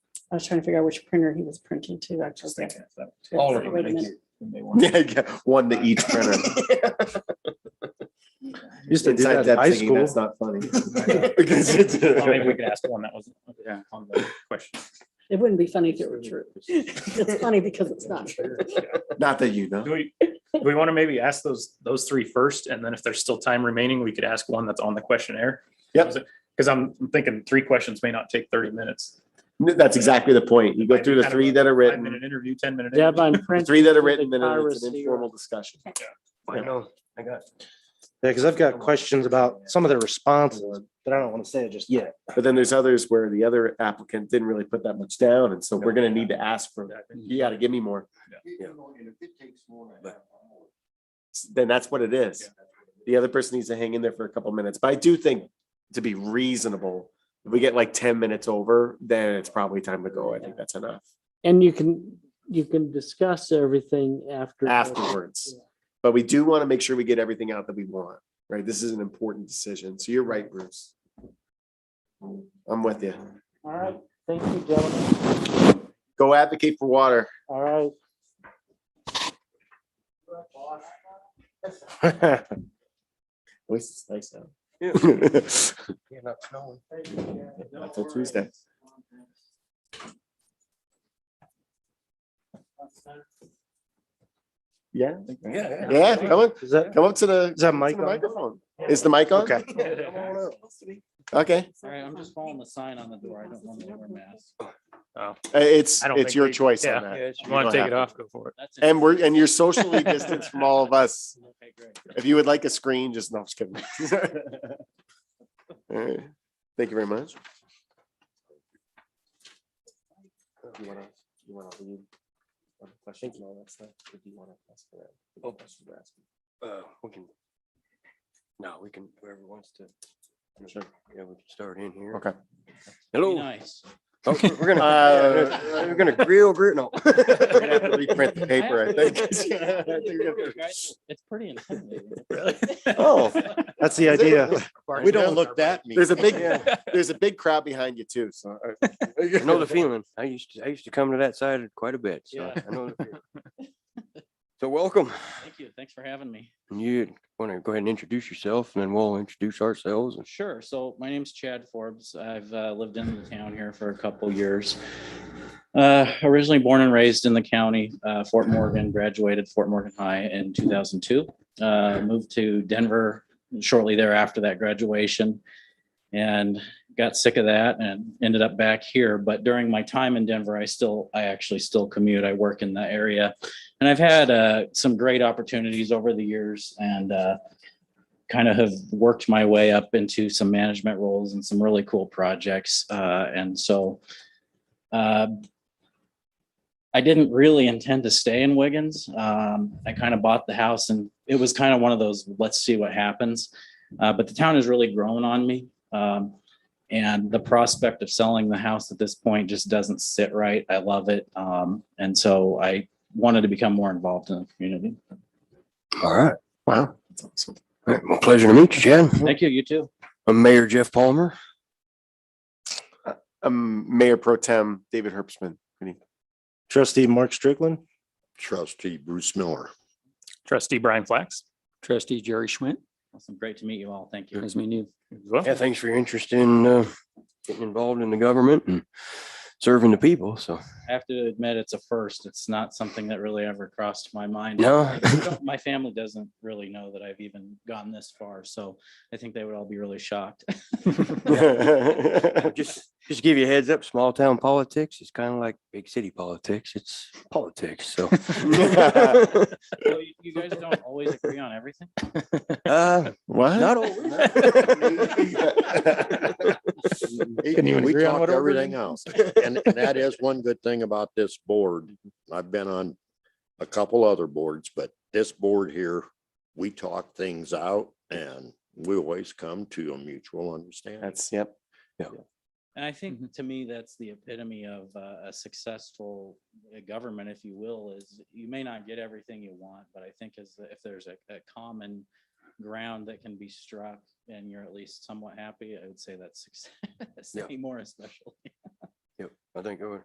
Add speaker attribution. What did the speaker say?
Speaker 1: I was trying to figure out which printer he was printing to,
Speaker 2: Just
Speaker 1: actually.
Speaker 2: thinking of that. All of them.
Speaker 1: Wait a
Speaker 2: they
Speaker 1: minute.
Speaker 2: do, and they want-
Speaker 3: Yeah, yeah, one to each printer.
Speaker 4: Used to do
Speaker 3: Inside
Speaker 4: that in
Speaker 3: that
Speaker 4: high
Speaker 3: thingy,
Speaker 4: school.
Speaker 3: that's not funny.
Speaker 2: Well, Maybe we could ask one that was on the question.
Speaker 1: It wouldn't be funny if it were true. It's funny because it's not true.
Speaker 3: Not that you know.
Speaker 2: Do we, do we want to maybe ask those, those three first, and then if there's still time remaining, we could ask one that's on the questionnaire?
Speaker 3: Yep.
Speaker 2: Because I'm I'm thinking three questions may not take thirty minutes.
Speaker 3: No, That's exactly the point. You go through the three that are
Speaker 2: Five-minute
Speaker 3: written,
Speaker 2: interview, ten-minute.
Speaker 4: Deb, I'm
Speaker 3: the
Speaker 4: print-
Speaker 3: three that are written, then it's an
Speaker 4: Piracy or-
Speaker 3: informal discussion.
Speaker 5: I know, I got.
Speaker 4: Yeah, because I've got questions about some of the responses, but I don't want to say it just yet.
Speaker 3: But then there's others where the other applicant didn't really put that much down, and so we're gonna need to ask for, you gotta give me more. Then that's what it is. The other person needs to hang in there for a couple minutes, but I do think to be reasonable, if we get like ten minutes over, then it's probably time to go. I think that's enough
Speaker 4: And you can, you can discuss everything after.
Speaker 3: afterwards. But we do want to make sure we get everything out that we want, right? This is an important decision. So you're right, Bruce. I'm with you.
Speaker 4: All right, thank you, gentlemen.
Speaker 3: Go advocate for water.
Speaker 4: All right.
Speaker 3: At least it's nice out. Until Tuesday. Yeah,
Speaker 5: Yeah.
Speaker 3: yeah, come on,
Speaker 4: Is that,
Speaker 3: come up to the.
Speaker 4: is that
Speaker 3: to
Speaker 4: Mike?
Speaker 3: the
Speaker 4: on?
Speaker 3: microphone. Is the mic on?
Speaker 4: Okay.
Speaker 3: Okay,
Speaker 6: All right, I'm just following the sign on the door. I don't want to wear masks.
Speaker 3: Uh, it's,
Speaker 2: I don't
Speaker 3: it's
Speaker 2: think
Speaker 3: your
Speaker 2: we-
Speaker 3: choice on
Speaker 2: yeah.
Speaker 3: that.
Speaker 2: Want to
Speaker 3: Go
Speaker 2: take
Speaker 3: ahead.
Speaker 2: it off, go for it.
Speaker 6: That's it.
Speaker 3: And we're, and you're socially distanced from all of us.
Speaker 6: Okay, great.
Speaker 3: If you would like a screen, just, no, I'm just kidding. All right. Thank you very much. You wanna- you wanna leave on the question and all that stuff, or do you wanna pass it around? What
Speaker 5: Oh.
Speaker 3: questions we're asking?
Speaker 5: Uh, We can. No, we can, whoever wants to. Yeah, we can start in here.
Speaker 3: Okay.
Speaker 6: Be
Speaker 5: Hello.
Speaker 6: nice.
Speaker 5: Oh, We're we're gonna,
Speaker 3: Uh,
Speaker 5: yeah, we're gonna grill, grill, no.
Speaker 3: We're gonna have to Reprint the paper, I think. I think we're gonna-
Speaker 6: It's pretty intimidating.
Speaker 5: Oh.
Speaker 4: That's the idea.
Speaker 5: We don't look that. mean.
Speaker 3: There's a big,
Speaker 5: Yeah.
Speaker 3: there's a big crowd behind you too, so. uh,
Speaker 5: I know the feeling. I used to, I used to come to that side quite a bit, so
Speaker 6: Yeah.
Speaker 5: I know. the feeling. So welcome.
Speaker 6: Thank you. Thanks for having me.
Speaker 5: You want to go ahead and introduce yourself and then we'll introduce ourselves and
Speaker 6: Sure. So my name's Chad Forbes. I've uh, lived in the town here for a couple years. Uh, Originally born and raised in the county, uh, Fort Morgan, graduated Fort Morgan High in 2002. Uh, Moved to Denver shortly thereafter that graduation and got sick of that and ended up back here. But during my time in Denver, I still, I actually still commute. I work in the area. And I've had uh, some great opportunities over the years and uh, kind of have worked my way up into some management roles and some really cool projects. Uh, and so uh, I didn't really intend to stay in Wiggins. Um, I kind of bought the house and it was kind of one of those, let's see what happens. Uh, but the town has really grown on me. Um, and the prospect of selling the house at this point just doesn't sit right. I love it. Um, and so I wanted to become more involved in the community.
Speaker 5: All right.
Speaker 3: Wow.
Speaker 5: All right, Well, pleasure to meet you, Chad.
Speaker 6: Thank you. You too.
Speaker 5: I'm Mayor Jeff Palmer.
Speaker 3: Um, Mayor Pro Tem David Herbstman.
Speaker 4: Trustee Mark Strickland?
Speaker 7: Trustee Bruce Miller.
Speaker 2: Trustee Brian Flax.
Speaker 8: Trustee Jerry Schwint,
Speaker 6: Awesome. Great to meet you all. Thank you.
Speaker 8: as we knew.
Speaker 2: as well.
Speaker 5: Yeah, thanks for your interest in uh, getting involved in the government and serving the people. So,
Speaker 6: I have to admit, it's a first. It's not something that really ever crossed my mind.
Speaker 5: No.
Speaker 6: I don't- My family doesn't really know that I've even gone this far, so I think they would all be really shocked.
Speaker 5: just just give you a heads up, small town politics is kind of like big city politics. It's politics. So,
Speaker 6: So you- You guys don't always agree on everything?
Speaker 5: uh,
Speaker 3: What?
Speaker 5: not always.
Speaker 7: He-
Speaker 4: Couldn't even
Speaker 7: We
Speaker 4: agree on
Speaker 7: talked
Speaker 4: what over
Speaker 7: everything else. And, and that is one good thing about this board. I've been on a couple other boards, but this board here, we talk things out and we always come to a mutual understanding.
Speaker 3: That's, yep.
Speaker 6: And I
Speaker 5: Mm-hmm.
Speaker 6: think to me, that's the epitome of uh, a successful uh, government, if you will, is you may not get everything you want, but I think is that if there's a, a common ground that can be struck and you're at least somewhat happy, I would say that's success
Speaker 5: Yeah.
Speaker 6: anymore especially.
Speaker 5: Yep, I think it would.